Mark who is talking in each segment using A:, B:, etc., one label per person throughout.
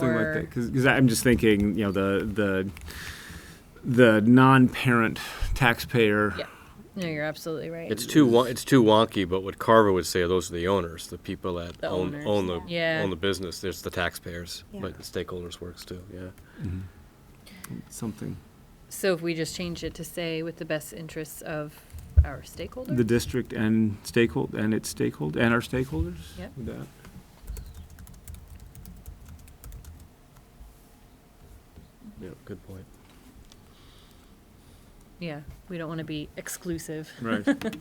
A: Something like
B: or-
A: that, because I'm just thinking, you know, the, the, the non-parent taxpayer.
B: Yeah. No, you're absolutely right.
C: It's too won- it's too wonky, but what Carver would say, those are the owners, the people that
B: The
C: own
B: owners,
C: own the
B: yeah. Yeah.
C: own the business. There's the taxpayers,
D: Yeah.
C: but the stakeholders works too. Yeah.
A: Something.
B: so if we just change it to say with the best interests of our stakeholders?
A: The district and stakeholder, and its stakeholder, and our stakeholders?
B: Yep.
A: With that?
C: Yeah. Good point.
B: yeah, we don't want to be exclusive.
A: Right.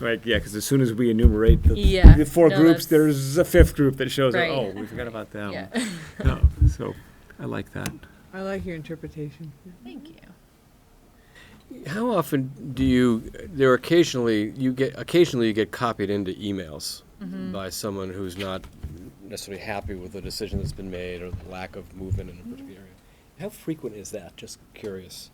A: Right, yeah, because as soon as we enumerate the,
B: Yeah,
A: the four
B: no,
A: groups,
B: that's-
A: there's a fifth group that shows up.
B: Right.
A: Oh, we forgot about them.
B: yeah.
A: No, so, I like that.
D: I like your interpretation.
B: Thank you.
C: How often do you? There are occasionally you get occasionally you get copied into emails
B: Mm-hmm.
C: by someone who's not necessarily happy with the decision that's been made or the lack of movement in a particular area. How frequent is that? Just curious.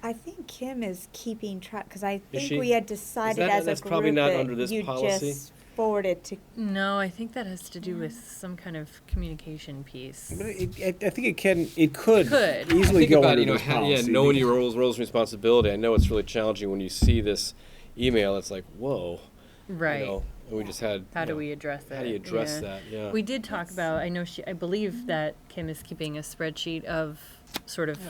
D: I think Kim is keeping track, because I
C: Is
D: think
C: she?
D: we had decided
C: that-
D: as a
C: that's probably
D: group
C: not under
D: that
C: this
D: you
C: policy?
D: just forwarded to,
B: No, I think that has to do with some kind of communication piece.
E: But it, I, I think it can, it could
B: Could.
E: easily
C: think
E: go
C: about
E: under
C: you know
E: this
C: how, yeah
E: policy
C: knowing
E: because-
C: your roles roles and responsibility. I know it's really challenging when you see this email. It's like whoa,
B: Right.
C: You know, and we just had
B: How
C: you
B: do
C: know,
B: we address that?
C: how do you address
B: Yeah.
C: that? Yeah,
B: We did talk about, I know she, I believe that Kim is keeping a spreadsheet of sort of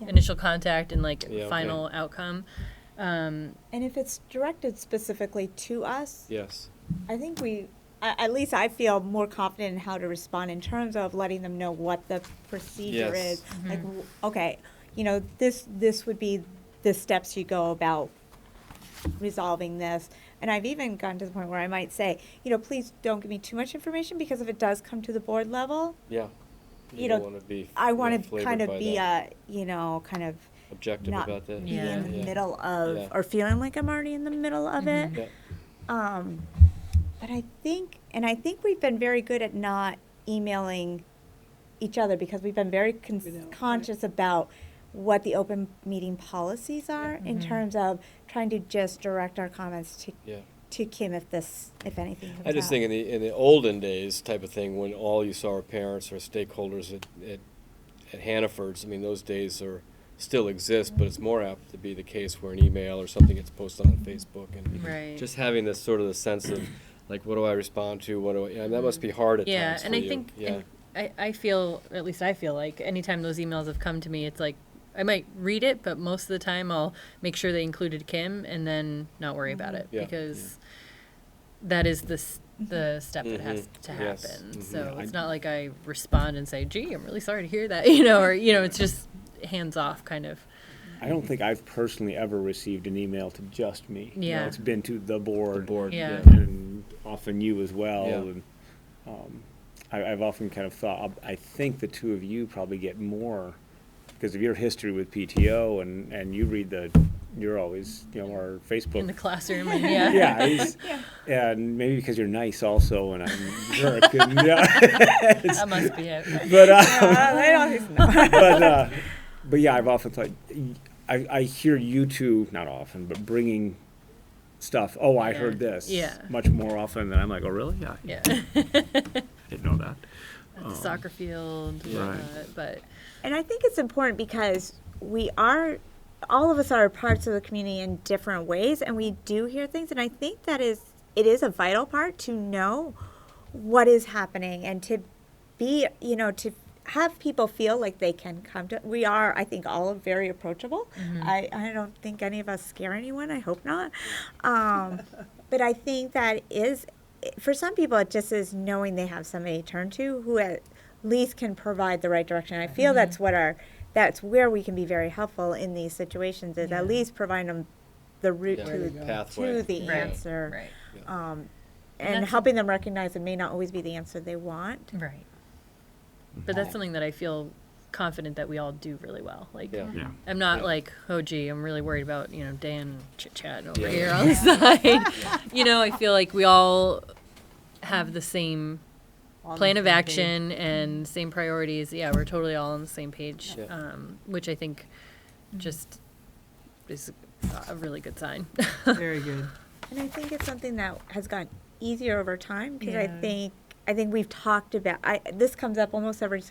D: Yeah.
B: initial contact and like
C: Yeah, okay.
B: final outcome. Um,
D: and if it's directed specifically to us,
C: yes,
D: I think we, a- at least I feel more confident in how to respond in terms of letting them know what the procedure
C: Yes.
D: is. Like, w- okay, you know, this, this would be the steps you go about resolving this. And I've even gotten to the point where I might say, you know, please don't give me too much information, because if it does come to the board level,
C: yeah.
D: You
C: don't
D: know,
C: wanna be,
D: I
C: you know,
D: want to
C: flavored
D: kind
C: by
D: of be
C: that.
D: a, you know, kind of
C: objective
D: not
C: about that.
D: be in the
B: Yeah.
D: middle of,
C: Yeah.
D: or feeling like I'm already in the middle of it.
C: Yeah.
D: Um, but I think, and I think we've been very good at not emailing each other because we've been very con- conscious about what the open meeting policies are in terms of trying to just direct our comments to
C: Yeah.
D: to Kim if this, if anything. Comes
C: I just
D: up.
C: think in the in the olden days type of thing when all you saw were parents or stakeholders at at, at Hannaford's. I mean, those days are still exist, but it's more apt to be the case where an email or something gets posted on Facebook and
B: Right.
C: just having this sort of the sense of like, what do I respond to? What do I? Yeah, that must be hard at
B: yeah,
C: times
B: and
C: for
B: I
C: you.
B: think
C: yeah.
B: and I, I feel at least I feel like anytime those emails have come to me, it's like I might read it, but most of the time I'll make sure they included Kim and then not worry about it
C: Mm-hmm. Yeah.
B: because that is the s- the step that has
C: Mhm.
B: to happen.
C: Yes. Mhm.
B: So
A: Yeah,
B: it's
A: I-
B: not like I respond and say, "Gee, I'm really sorry to hear that," you know, or you know, it's just hands off kind of.
E: I don't think I've personally ever received an email to just me. You know,
B: Yeah.
E: It's been to the board.
C: board,
B: Yeah.
C: yeah.
E: And often you as well.
C: Yeah.
E: And, um, I, I've often kind of thought, I think the two of you probably get more because of your history with PTO and, and you read the, you're always, you know, our Facebook.
B: In the classroom, and yeah,
E: Yeah, it's- and maybe because you're nice also and I'm a jerk. And, yeah.
B: that must be it.
E: But, uh,
D: Uh, they don't-
E: but uh, but yeah, I've often thought I, I hear you two not often, but bringing stuff. Oh, I heard
B: Yeah.
E: this.
B: Yeah.
E: Much more often than I'm like, oh really? Yeah,
B: Yeah,
E: I didn't know that.
B: at the soccer field,
E: Right.
B: uh, but
D: And I think it's important because we are, all of us are parts of the community in different ways, and we do hear things. And I think that is, it is a vital part to know what is happening and to be, you know, to have people feel like they can come to. We are, I think, all very approachable. I, I don't think any of us scare anyone. I hope not. Um, but I think that is, for some people, it just is knowing they have somebody to turn to who at least can provide the right direction. I feel that's what our, that's where we can be very helpful in these situations is at least providing them the route
C: Yeah,
D: to,
C: pathway.
D: to the
B: Right,
D: answer
B: right,
D: um,
B: And
D: and
B: that's-
D: helping them recognize it may not always be the answer they want.
B: Right. But that's something that I feel confident that we all do really well. Like,
C: Yeah.
A: Yeah.
B: I'm not
C: Yeah.
B: like, oh, gee, I'm really worried about, you know, Dan chit chatting over
C: Yeah.
B: here on the side. you know, I feel like we all have the same plan of action and same priorities. Yeah, we're totally all on the same page,
C: Yeah.
B: um, which I think just is a really good sign.
F: Very good.
D: And I think it's something that has gotten easier over time because I
F: Yeah.
D: think I think we've talked about, I, this comes up almost every